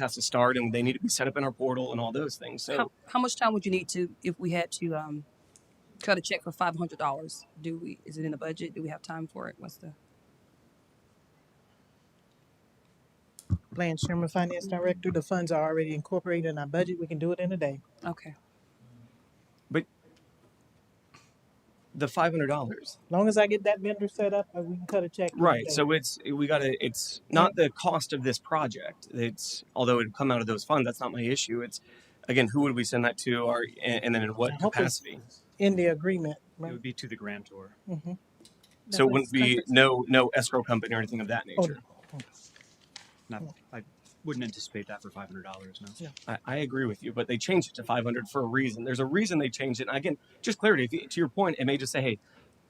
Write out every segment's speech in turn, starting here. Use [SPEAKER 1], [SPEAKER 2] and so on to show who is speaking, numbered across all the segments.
[SPEAKER 1] has to start and they need to be set up in our portal and all those things. So
[SPEAKER 2] How, how much time would you need to, if we had to um, cut a check for five hundred dollars? Do we? Is it in the budget? Do we have time for it? What's the?
[SPEAKER 3] Blanche Sherman, Finance Director. The funds are already incorporated in our budget. We can do it in a day.
[SPEAKER 2] Okay.
[SPEAKER 1] the five hundred dollars,
[SPEAKER 3] Long as I get that vendor set up, uh, we can cut a check. in a
[SPEAKER 1] right?
[SPEAKER 3] day.
[SPEAKER 1] So it's we got to. It's not the cost of this project. It's although it would come out of those funds. That's not my issue. It's again, who would we send that to? Our and, and then in what
[SPEAKER 3] I hope it's-
[SPEAKER 1] capacity?
[SPEAKER 3] In the agreement,
[SPEAKER 4] It
[SPEAKER 3] right?
[SPEAKER 4] would be to the grantor.
[SPEAKER 3] Mhm.
[SPEAKER 1] So it wouldn't be no no escrow company or anything of that
[SPEAKER 3] Oh,
[SPEAKER 1] nature.
[SPEAKER 4] Not, I wouldn't anticipate that for five hundred dollars, no.
[SPEAKER 1] I, I agree with you, but they changed it to 500 for a reason. There's a reason they changed it. And again, just clarity. If you, to your point, it may just say, "Hey,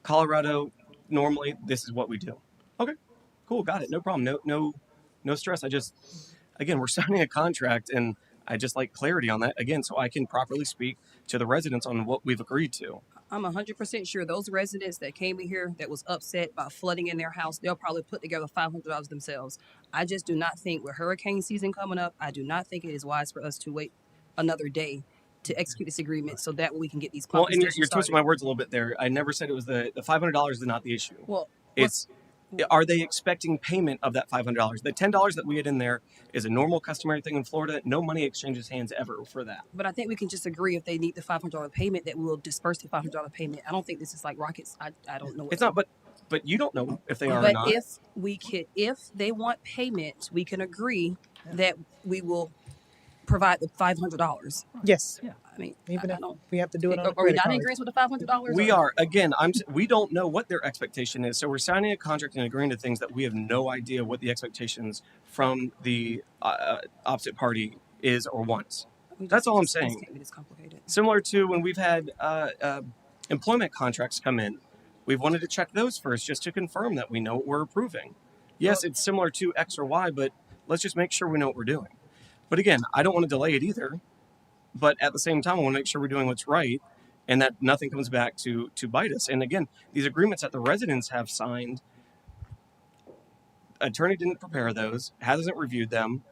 [SPEAKER 1] Colorado, normally this is what we do." Okay, cool, got it. No problem. No, no, no stress. I just, again, we're signing a contract, and I just like clarity on that again, so I can properly speak to the residents on what we've agreed to.
[SPEAKER 2] I'm hundred percent sure those residents that came in here that was upset by flooding in their house, they'll probably put together five hundred dollars themselves. I just do not think with hurricane season coming up, I do not think it is wise for us to wait another day to execute this agreement so that we can get these
[SPEAKER 1] Well,
[SPEAKER 2] pumping
[SPEAKER 1] and you're,
[SPEAKER 2] stations
[SPEAKER 1] you're twisting my
[SPEAKER 2] started.
[SPEAKER 1] words a little bit there. I never said it was the the $500 is not the issue.
[SPEAKER 2] Well,
[SPEAKER 1] It's are they expecting payment of that five hundred dollars? The ten dollars that we had in there is a normal customary thing in Florida. No money exchanges hands ever for that.
[SPEAKER 2] But I think we can just agree if they need the five hundred dollar payment that we will disperse the five hundred dollar payment. I don't think this is like rockets. I, I don't know. what
[SPEAKER 1] It's
[SPEAKER 2] to-
[SPEAKER 1] not, but but you don't know if they are or
[SPEAKER 2] But
[SPEAKER 1] not.
[SPEAKER 2] if we can, if they want payment, we can agree that we will provide the five hundred dollars.
[SPEAKER 3] Yes,
[SPEAKER 2] I mean, I,
[SPEAKER 3] even
[SPEAKER 2] I
[SPEAKER 3] if
[SPEAKER 2] don't.
[SPEAKER 3] we have to do it on
[SPEAKER 2] Are
[SPEAKER 3] a
[SPEAKER 2] are we
[SPEAKER 3] credit
[SPEAKER 2] not in
[SPEAKER 3] card.
[SPEAKER 2] agreement with the five hundred dollars?
[SPEAKER 1] we are again. I'm. s- We don't know what their expectation is, so we're signing a contract and agreeing to things that we have no idea what the expectations from the uh, opposite party is or wants. That's all I'm saying.
[SPEAKER 2] Can't be this complicated.
[SPEAKER 1] similar to when we've had uh, uh, employment contracts come in. We've wanted to check those first just to confirm that we know what we're approving. Yes, it's similar to X or Y, but let's just make sure we know what we're doing. But again, I don't want to delay it either. But at the same time, I want to make sure we're doing what's right and that nothing comes back to to bite us. And again, these agreements that the residents have signed, attorney didn't prepare those, hasn't reviewed them.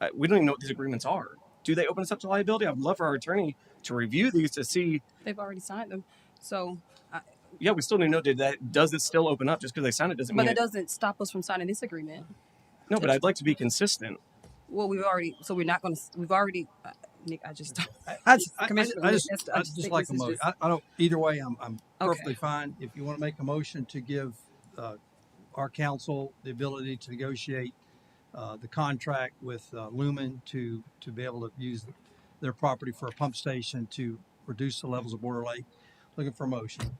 [SPEAKER 1] Uh, we don't even know what these agreements are. Do they open us up to liability? I'd love for our attorney to review these to see.
[SPEAKER 2] They've already signed them, so.
[SPEAKER 1] Yeah, we still need to know. Did that does it still open up just because they signed it doesn't
[SPEAKER 2] But
[SPEAKER 1] mean
[SPEAKER 2] that
[SPEAKER 1] it,
[SPEAKER 2] doesn't stop us from signing this agreement.
[SPEAKER 1] no. But I'd like to be consistent.
[SPEAKER 2] Well, we've already. So we're not going to. We've already. Uh, Nick, I just.
[SPEAKER 5] I, just- I, I-
[SPEAKER 2] Commissioner,
[SPEAKER 5] I just,
[SPEAKER 2] that's- I
[SPEAKER 5] I
[SPEAKER 2] just
[SPEAKER 5] just
[SPEAKER 2] think
[SPEAKER 5] like a
[SPEAKER 2] this is
[SPEAKER 5] motion.
[SPEAKER 2] just-
[SPEAKER 5] I, I don't, either way, I'm, I'm
[SPEAKER 2] Okay.
[SPEAKER 5] perfectly fine. If you want to make a motion to give, uh, our council the ability to negotiate, uh, the contract with, uh, Lumen to, to be able to use their property for a pump station to reduce the levels of Border Lake, looking for a motion.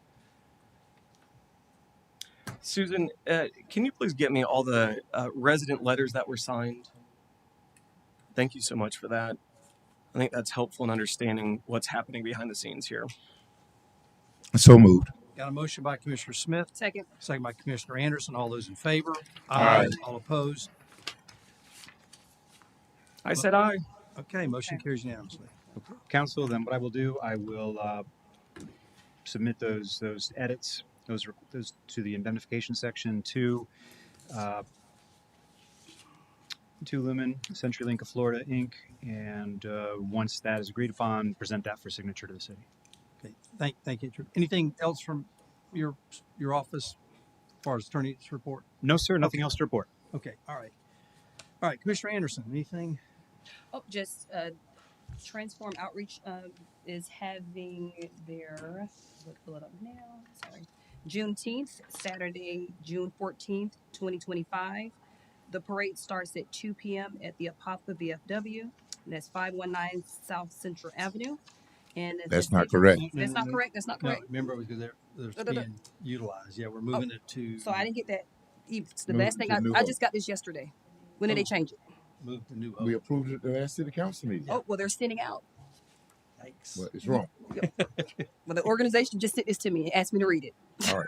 [SPEAKER 1] Susan, uh, can you please get me all the uh, resident letters that were signed? Thank you so much for that. I think that's helpful in understanding what's happening behind the scenes here.
[SPEAKER 6] So moved.
[SPEAKER 5] Got a motion by Commissioner Smith,
[SPEAKER 2] Second.
[SPEAKER 5] second by Commissioner Anderson. All those in favor?
[SPEAKER 6] Aye.
[SPEAKER 5] All opposed?
[SPEAKER 1] I said I.
[SPEAKER 5] Okay, motion carries unanimously.
[SPEAKER 4] Council, then what I will do, I will uh, submit those, those edits, those, re- those to the indemnification section to, uh, to Lumen, CenturyLink of Florida, Inc., and uh, once that is agreed upon, present that for signature to the city.
[SPEAKER 5] Okay, thank, thank you. Anything else from your, your office as far as attorney's report?
[SPEAKER 4] No, sir, nothing else to report.
[SPEAKER 5] Okay, all right. All right, Commissioner Anderson, anything?
[SPEAKER 2] Oh, just uh, Transform Outreach uh, is having their, we'll pull it up now, sorry. Juneteenth, Saturday, June 14th, 2025. The parade starts at 2 p.m. at the Apopka VFW. And that's 519 South Central Avenue. And it's a
[SPEAKER 6] That's not
[SPEAKER 2] vigil-
[SPEAKER 6] correct.
[SPEAKER 2] That's not
[SPEAKER 5] No,
[SPEAKER 2] correct. That's not
[SPEAKER 5] Mm-hmm. No,
[SPEAKER 2] correct.
[SPEAKER 5] remember, because they're,
[SPEAKER 2] Da, da,
[SPEAKER 5] they're
[SPEAKER 2] da.
[SPEAKER 5] being utilized. Yeah, we're moving it to.
[SPEAKER 2] Oh, So I didn't get that. e, It's the
[SPEAKER 6] No,
[SPEAKER 2] last thing
[SPEAKER 6] the
[SPEAKER 2] I,
[SPEAKER 6] new
[SPEAKER 2] I
[SPEAKER 6] one.
[SPEAKER 2] just got this yesterday. When did they
[SPEAKER 5] Oh.
[SPEAKER 2] change it?
[SPEAKER 5] Move to new.
[SPEAKER 6] We approved it at the last city council meeting.
[SPEAKER 2] Oh, well, they're sending out.
[SPEAKER 5] Yikes.
[SPEAKER 6] But it's wrong.
[SPEAKER 2] Well, the organization just sent this to me and asked me to read it.
[SPEAKER 6] All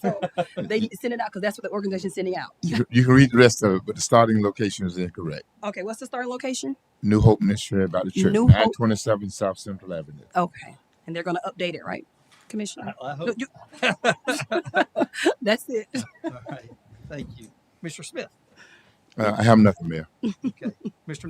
[SPEAKER 2] so they need to send it out because that's what the organization's sending out.
[SPEAKER 6] You, can- you can read the rest of it, but the starting location is incorrect.
[SPEAKER 2] Okay, what's the starting location?
[SPEAKER 6] New Hope Missionary by the church,
[SPEAKER 2] New Hope-
[SPEAKER 6] nine twenty-seven South Central Avenue.
[SPEAKER 2] Okay, and they're going to update it, right, Commissioner?
[SPEAKER 5] I I
[SPEAKER 2] No,
[SPEAKER 5] hope,
[SPEAKER 2] you- that's it.
[SPEAKER 5] all right, thank you. Mr. Smith,
[SPEAKER 6] Uh, I have nothing, Mayor.
[SPEAKER 5] okay. Mr.